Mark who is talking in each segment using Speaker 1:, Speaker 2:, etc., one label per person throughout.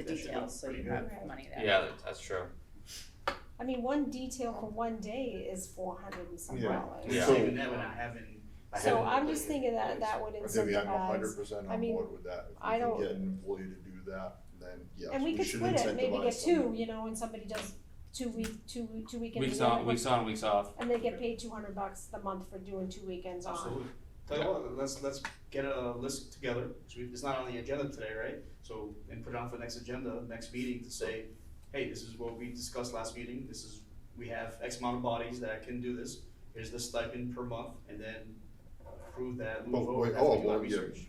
Speaker 1: detail, so you have money there.
Speaker 2: Yeah, that- that's true.
Speaker 3: I mean, one detail for one day is four hundred and some
Speaker 4: Yeah.
Speaker 3: dollars.
Speaker 2: Yeah.
Speaker 4: So-
Speaker 5: Even that one I haven't. I
Speaker 3: So
Speaker 5: haven't
Speaker 3: I'm
Speaker 5: looked
Speaker 3: just
Speaker 5: at
Speaker 3: thinking that
Speaker 5: it.
Speaker 3: that would
Speaker 4: I think I'm a
Speaker 3: incentivize,
Speaker 4: hundred percent
Speaker 3: I
Speaker 4: on
Speaker 3: mean,
Speaker 4: board with that, if
Speaker 3: I
Speaker 4: we can
Speaker 3: don't-
Speaker 4: get an employee to do that, then yes,
Speaker 3: and we
Speaker 4: we
Speaker 3: could
Speaker 4: should
Speaker 3: split it, maybe
Speaker 4: incentivize
Speaker 3: get two,
Speaker 4: them.
Speaker 3: you know, and somebody does two week, two, two weekends.
Speaker 2: Weeks
Speaker 3: and the
Speaker 2: on,
Speaker 3: other
Speaker 2: weeks on, weeks
Speaker 3: one-
Speaker 2: off.
Speaker 3: And they get paid two hundred bucks the month for doing two weekends on.
Speaker 5: Absolutely. Tell you what, let's, let's get a list together, 'cause we- it's not on the agenda today, right? So, and put it on for next agenda, next meeting to say, hey, this is what we discussed last meeting, this is, we have X amount of bodies that can do this, here's the stipend per month, and then prove that,
Speaker 4: But
Speaker 5: move over,
Speaker 4: wait,
Speaker 5: have to
Speaker 4: oh,
Speaker 5: do our
Speaker 4: well, yeah.
Speaker 5: research.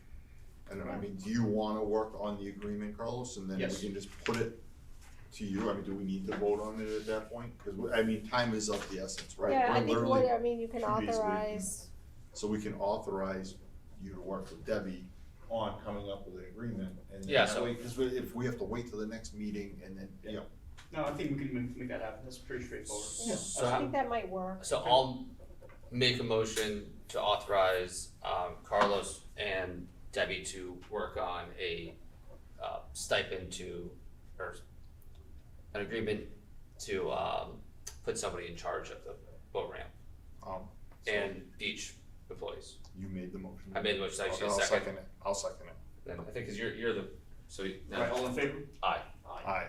Speaker 4: I don't know, I mean, do you wanna work on the agreement, Carlos, and then we
Speaker 5: Yes.
Speaker 4: can just put it to you, I mean, do we need to vote on it at that point? Cause we, I mean, time is of the essence, right?
Speaker 3: Yeah,
Speaker 4: We're
Speaker 3: I think
Speaker 4: literally-
Speaker 3: what, I mean, you can
Speaker 4: two days a week.
Speaker 3: authorize,
Speaker 4: So we can authorize you to work with Debbie on coming up with an agreement, and then
Speaker 2: Yeah,
Speaker 4: that
Speaker 2: so-
Speaker 4: way, cause we- if we have to wait till the next meeting and then, you know,
Speaker 5: No, I think we can make, make that happen, that's pretty straightforward.
Speaker 3: Yeah.
Speaker 2: So,
Speaker 3: I
Speaker 2: how-
Speaker 3: think that might work.
Speaker 2: so I'll make a motion to authorize, um, Carlos and Debbie to work on a, uh, stipend to, or an agreement to, um, put somebody in charge of the boat ramp
Speaker 4: um, so
Speaker 2: and beach employees.
Speaker 4: you made the motion.
Speaker 2: I made the motion, actually,
Speaker 4: I'll- I'll
Speaker 2: second.
Speaker 4: second it, I'll second it,
Speaker 2: Then I think, cause you're, you're the, so you-
Speaker 5: Right, all in favor?
Speaker 2: Aye.
Speaker 4: aye.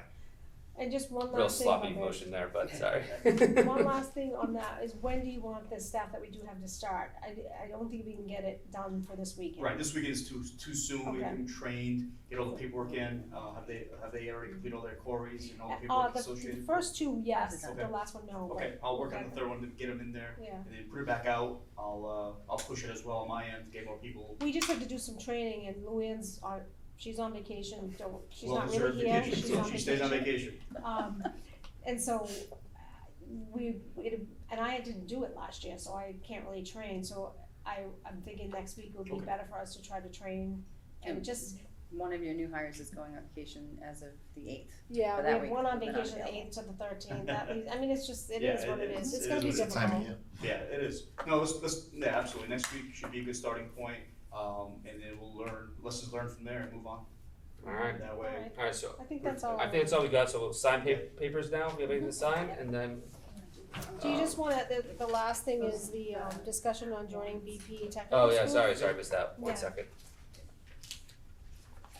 Speaker 3: And just one
Speaker 2: real
Speaker 3: last thing on
Speaker 2: sloppy
Speaker 3: that.
Speaker 2: motion there, but sorry.
Speaker 3: One last thing on that is when do you want the staff that we do have to start? I, I don't think we can get it done for this weekend.
Speaker 5: Right, this weekend is too, too soon, we've
Speaker 3: Okay.
Speaker 5: been trained, get all the paperwork in, uh, have they, have they already completed all their queries and all the
Speaker 3: Uh,
Speaker 5: paperwork
Speaker 3: the,
Speaker 5: associated?
Speaker 3: the first two, yes, the
Speaker 5: Okay.
Speaker 3: last one, no, but,
Speaker 5: Okay, I'll work on the third one to get them in there,
Speaker 3: yeah.
Speaker 5: and then put it back out, I'll, uh, I'll push it as well on my end, to get more people.
Speaker 3: We just have to do some training and Luann's on, she's on vacation, don't, she's
Speaker 5: Well,
Speaker 3: not
Speaker 5: deserved
Speaker 3: really here,
Speaker 5: vacation,
Speaker 3: she's
Speaker 5: so
Speaker 3: on vacation.
Speaker 5: She stays on vacation,
Speaker 3: Um, and so, uh, we, it, and I didn't do it last year, so I can't really train, so I, I'm thinking next week would be
Speaker 5: Okay.
Speaker 3: better for us to try to train. And
Speaker 1: And-
Speaker 3: just,
Speaker 1: One of your new hires is going on vacation as of the eighth.
Speaker 3: yeah,
Speaker 1: For
Speaker 3: we
Speaker 1: that
Speaker 3: have
Speaker 1: week,
Speaker 3: one on
Speaker 1: we're not
Speaker 3: vacation, the
Speaker 1: available.
Speaker 3: eighth to the thirteenth, that means, I mean, it's just, it
Speaker 5: Yeah,
Speaker 3: is what
Speaker 5: it-
Speaker 3: it
Speaker 5: it's-
Speaker 3: is, it's
Speaker 5: it
Speaker 3: gonna
Speaker 5: is
Speaker 3: be
Speaker 5: what it
Speaker 3: difficult.
Speaker 5: is.
Speaker 4: Time of year.
Speaker 5: yeah, it is, no, let's, let's, yeah, absolutely, next week should be a good starting point, um, and then we'll learn, lessons learned from there and move on,
Speaker 2: Alright,
Speaker 5: that way.
Speaker 3: Alright,
Speaker 2: alright, so
Speaker 3: I think that's all.
Speaker 2: I think that's all we got, so we'll sign pa- papers now, we have anything to sign, and then.
Speaker 3: Do you
Speaker 2: uh,
Speaker 3: just wanna, the, the last thing is the, um, discussion on joining BP Technical School.
Speaker 2: Oh, yeah, sorry, sorry, I missed that,
Speaker 3: Yeah.
Speaker 2: one second.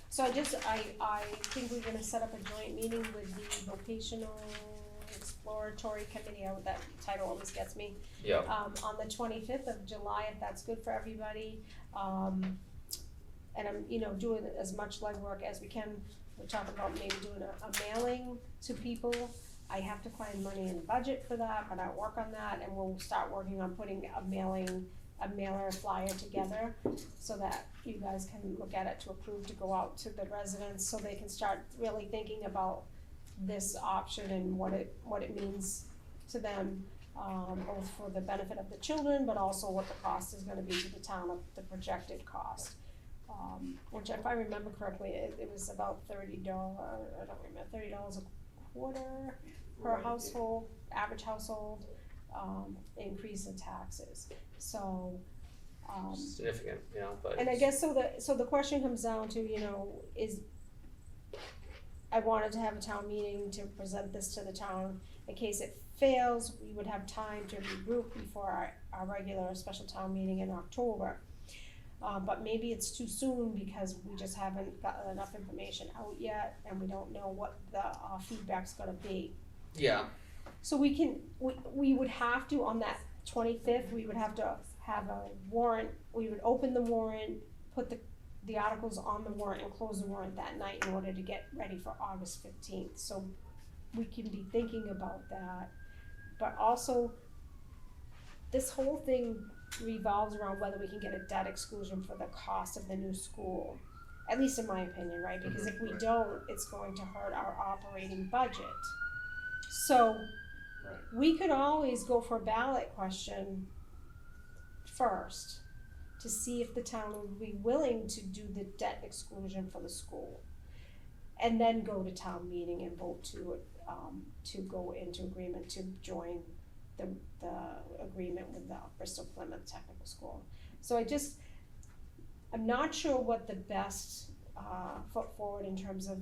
Speaker 3: So I just, I, I think we're gonna set up a joint meeting with the vocational exploratory committee, I, that title always gets me.
Speaker 2: Yeah.
Speaker 3: Um, on the twenty-fifth of July, if that's good for everybody, um, and I'm, you know, doing as much legwork as we can. We're talking about maybe doing a, a mailing to people, I have to find money in budget for that, but I'll work on that, and we'll start working on putting a mailing, a mailer flyer together so that you guys can look at it to approve to go out to the residents, so they can start really thinking about this option and what it, what it means to them, um, both for the benefit of the children, but also what the cost is gonna be to the town of the projected cost. Um, which if I remember correctly, it, it was about thirty dollar, I don't remember, thirty dollars a quarter per
Speaker 5: Right.
Speaker 3: household, average household, um, increase in taxes, so, um.
Speaker 2: Significant, you know, but.
Speaker 3: And I guess so the, so the question comes down to, you know, is, I wanted to have a town meeting to present this to the town. In case it fails, we would have time to regroup before our, our regular special town meeting in October. Uh, but maybe it's too soon because we just haven't gotten enough information out yet and we don't know what the, uh, feedback's gonna be.
Speaker 2: Yeah,
Speaker 3: So we can, we, we would have to, on that twenty-fifth, we would have to have a warrant, we would open the warrant, put the, the articles on the warrant and close the warrant that night in order to get ready for August fifteenth, so we can be thinking about that. But also, this whole thing revolves around whether we can get a debt exclusion for the cost of the new school, at least in my opinion, right? Because if we
Speaker 4: Mhm, right.
Speaker 3: don't, it's going to hurt our operating budget. So,
Speaker 5: Right.
Speaker 3: we could always go for a ballot question first to see if the town would be willing to do the debt exclusion for the school. And then go to town meeting and vote to, um, to go into agreement to join the, the agreement with the Bristol Plymouth Technical School. So I just, I'm not sure what the best, uh, foot forward in terms of